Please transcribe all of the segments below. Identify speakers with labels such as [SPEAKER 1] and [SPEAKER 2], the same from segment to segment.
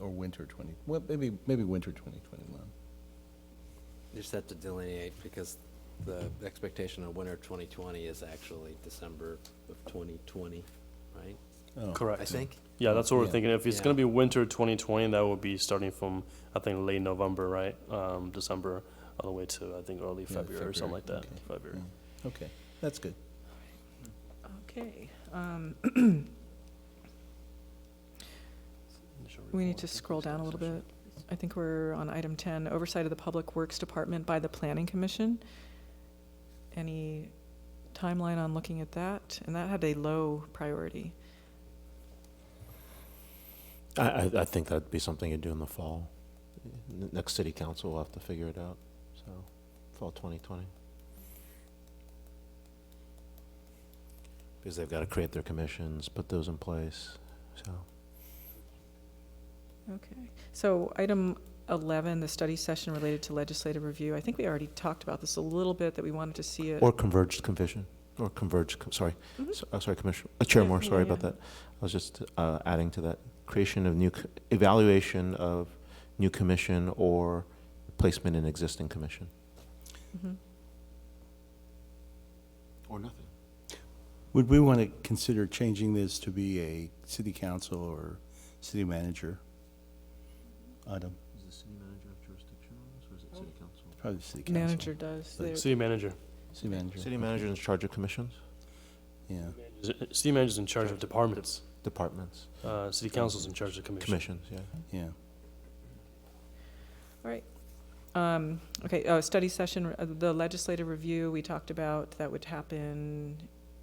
[SPEAKER 1] winter 20, well, maybe, maybe winter 2021.
[SPEAKER 2] You just have to delineate because the expectation on winter 2020 is actually December of 2020, right?
[SPEAKER 1] Oh,
[SPEAKER 2] I
[SPEAKER 3] Correct.
[SPEAKER 2] think.
[SPEAKER 3] Yeah, that's what we're
[SPEAKER 1] Yeah.
[SPEAKER 3] thinking. If it's going to
[SPEAKER 2] Yeah.
[SPEAKER 3] be winter 2020, that would be starting from, I think, late November, right? Um, December, all the way to, I think, early
[SPEAKER 1] Yeah,
[SPEAKER 3] February or something like that,
[SPEAKER 1] okay. Mm.
[SPEAKER 3] February.
[SPEAKER 1] Yeah. Okay, that's good.
[SPEAKER 4] Okay, um,
[SPEAKER 3] Initial
[SPEAKER 4] we
[SPEAKER 3] report,
[SPEAKER 4] need to
[SPEAKER 3] I think,
[SPEAKER 4] scroll down a little
[SPEAKER 3] session.
[SPEAKER 4] bit. I think we're on item 10, oversight of the Public Works Department by the Planning Commission. Any timeline on looking at that? And that had a low priority.
[SPEAKER 5] I, I, I think that'd be something you do in the fall. N- Next city council will have to figure it out, so, fall twenty twenty. Because they've gotta create their commissions, put those in place, so.
[SPEAKER 4] So item 11, the study session related to legislative review. I think we already talked about this a little bit, that we wanted to see it.
[SPEAKER 5] Or converged commission, or converged, co- sorry,
[SPEAKER 4] Mhm.
[SPEAKER 5] S- uh, sorry, Commissioner, uh, Chair
[SPEAKER 4] Yeah,
[SPEAKER 5] Moore,
[SPEAKER 4] yeah,
[SPEAKER 5] sorry about
[SPEAKER 4] yeah.
[SPEAKER 5] that. I was just uh, adding to that, creation of new, c- evaluation of new commission or placement in existing commission.
[SPEAKER 4] Mhm.
[SPEAKER 5] Or nothing.
[SPEAKER 1] Would we want to consider changing this to be a city council or city manager item?
[SPEAKER 5] Is the city manager of jurisdiction on this, or is it city council?
[SPEAKER 1] Probably city council.
[SPEAKER 4] Manager does.
[SPEAKER 1] Like
[SPEAKER 4] They're-
[SPEAKER 3] City manager.
[SPEAKER 1] City manager.
[SPEAKER 5] City manager in charge of commissions,
[SPEAKER 1] Yeah,
[SPEAKER 3] Is- City manager's in charge of departments.
[SPEAKER 5] departments,
[SPEAKER 3] Uh, city council's in charge of commission.
[SPEAKER 5] commissions, yeah.
[SPEAKER 1] yeah.
[SPEAKER 4] Um, Okay, uh, study session, uh, the legislative review, we talked about, that would happen,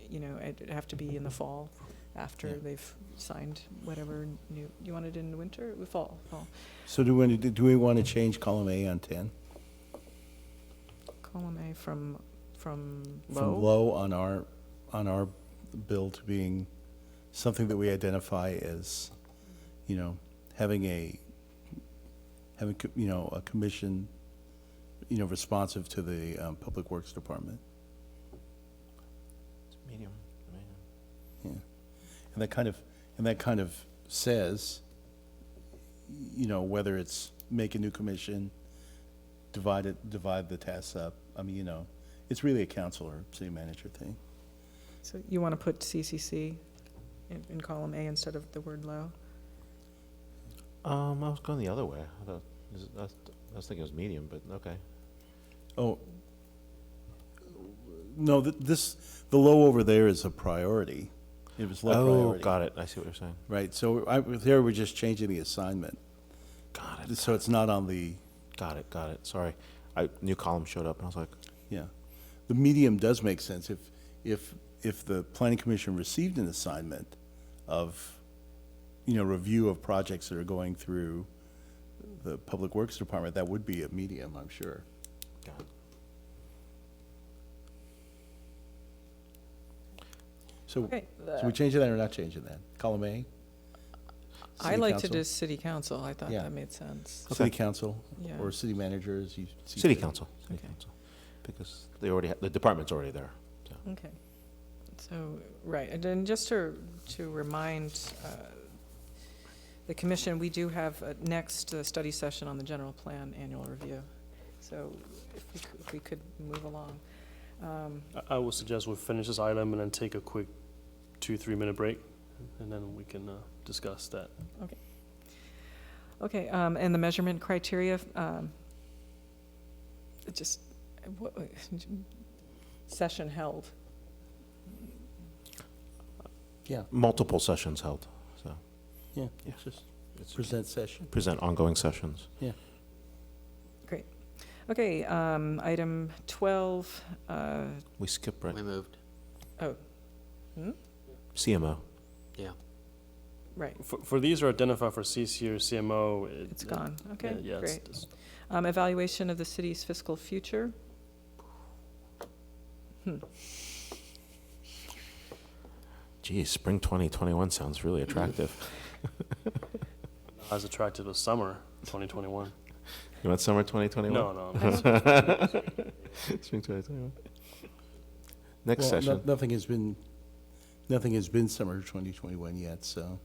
[SPEAKER 4] you know, it'd have to be in the fall
[SPEAKER 1] Yeah.
[SPEAKER 4] after they've signed whatever new, you want it in the winter, Uh, fall, fall.
[SPEAKER 1] So do we, do we want to change column A on 10?
[SPEAKER 4] Column A from, from
[SPEAKER 1] From
[SPEAKER 4] low.
[SPEAKER 1] low on our, on our bill to being something that we identify as, you know, having a, having, co- you know, a commission, you know, responsive to the um, Public Works Department.
[SPEAKER 5] Medium, medium.
[SPEAKER 1] And that kind of, and that kind of says, you know, whether it's make a new commission, divide it, divide the tasks up, I mean, you know, it's really a council or city manager thing.
[SPEAKER 4] So you want to put CCC in, in column A instead of the word low?
[SPEAKER 5] Um, I was going the other way. I thought, is it- I was- I was thinking it was medium, but okay.
[SPEAKER 1] Oh, no, th- this, the low over there is a priority. It was low
[SPEAKER 5] Oh,
[SPEAKER 1] priority.
[SPEAKER 5] got it, I see what you're saying.
[SPEAKER 1] Right, so I, there we're just changing the assignment,
[SPEAKER 5] Got it,
[SPEAKER 1] so it's not on the,
[SPEAKER 5] got it, got it, sorry. I, new column showed up, and I was like,
[SPEAKER 1] yeah. The medium does make sense if, if, if the planning commission received an assignment of, you know, review of projects that are going through the Public Works Department, that would be a medium, I'm sure.
[SPEAKER 5] got it.
[SPEAKER 1] So,
[SPEAKER 4] Okay,
[SPEAKER 1] so we changing that or not changing that? Column A?
[SPEAKER 4] I
[SPEAKER 1] City
[SPEAKER 4] liked
[SPEAKER 1] council?
[SPEAKER 4] it as city council, I thought
[SPEAKER 1] Yeah.
[SPEAKER 4] that made sense.
[SPEAKER 1] City
[SPEAKER 5] Okay.
[SPEAKER 1] council
[SPEAKER 4] Yeah.
[SPEAKER 1] or city manager as you. see
[SPEAKER 5] City
[SPEAKER 1] fit.
[SPEAKER 5] council, city
[SPEAKER 4] Okay.
[SPEAKER 5] council. Because they already, ha- the department's already there.
[SPEAKER 4] Okay. So, right, and then just to, to remind uh, the commission, we do have uh, next uh, study session on the general plan annual review. So if we could, if we could move along. Um,
[SPEAKER 3] I, I would suggest we finish this item and then take a quick two, three minute break, and then we can, uh, discuss that.
[SPEAKER 4] Okay, um, and the measurement criteria, um, it just, what, session held.
[SPEAKER 1] Yeah,
[SPEAKER 5] Multiple sessions held,
[SPEAKER 1] yeah,
[SPEAKER 5] Yeah.
[SPEAKER 1] it's just present session.
[SPEAKER 5] present ongoing sessions.
[SPEAKER 4] Okay, um, item 12, uh,
[SPEAKER 5] We skip right,
[SPEAKER 2] We moved.
[SPEAKER 5] CMO.
[SPEAKER 4] right,
[SPEAKER 3] For, for these are identified for CC or CMO. it-
[SPEAKER 4] it's
[SPEAKER 3] it-
[SPEAKER 4] gone, okay,
[SPEAKER 3] yeah, it's-
[SPEAKER 4] great.
[SPEAKER 3] it's-
[SPEAKER 4] Um, evaluation of the city's fiscal future.
[SPEAKER 5] Geez, spring 2021 sounds really attractive.
[SPEAKER 3] not as attractive as summer 2021.
[SPEAKER 5] You want summer 2021?
[SPEAKER 3] No, no. I'm
[SPEAKER 4] I
[SPEAKER 3] just-
[SPEAKER 5] Spring 2021. Next
[SPEAKER 1] Well, no-
[SPEAKER 5] session.
[SPEAKER 1] Nothing has been, nothing has been summer 2021 yet, so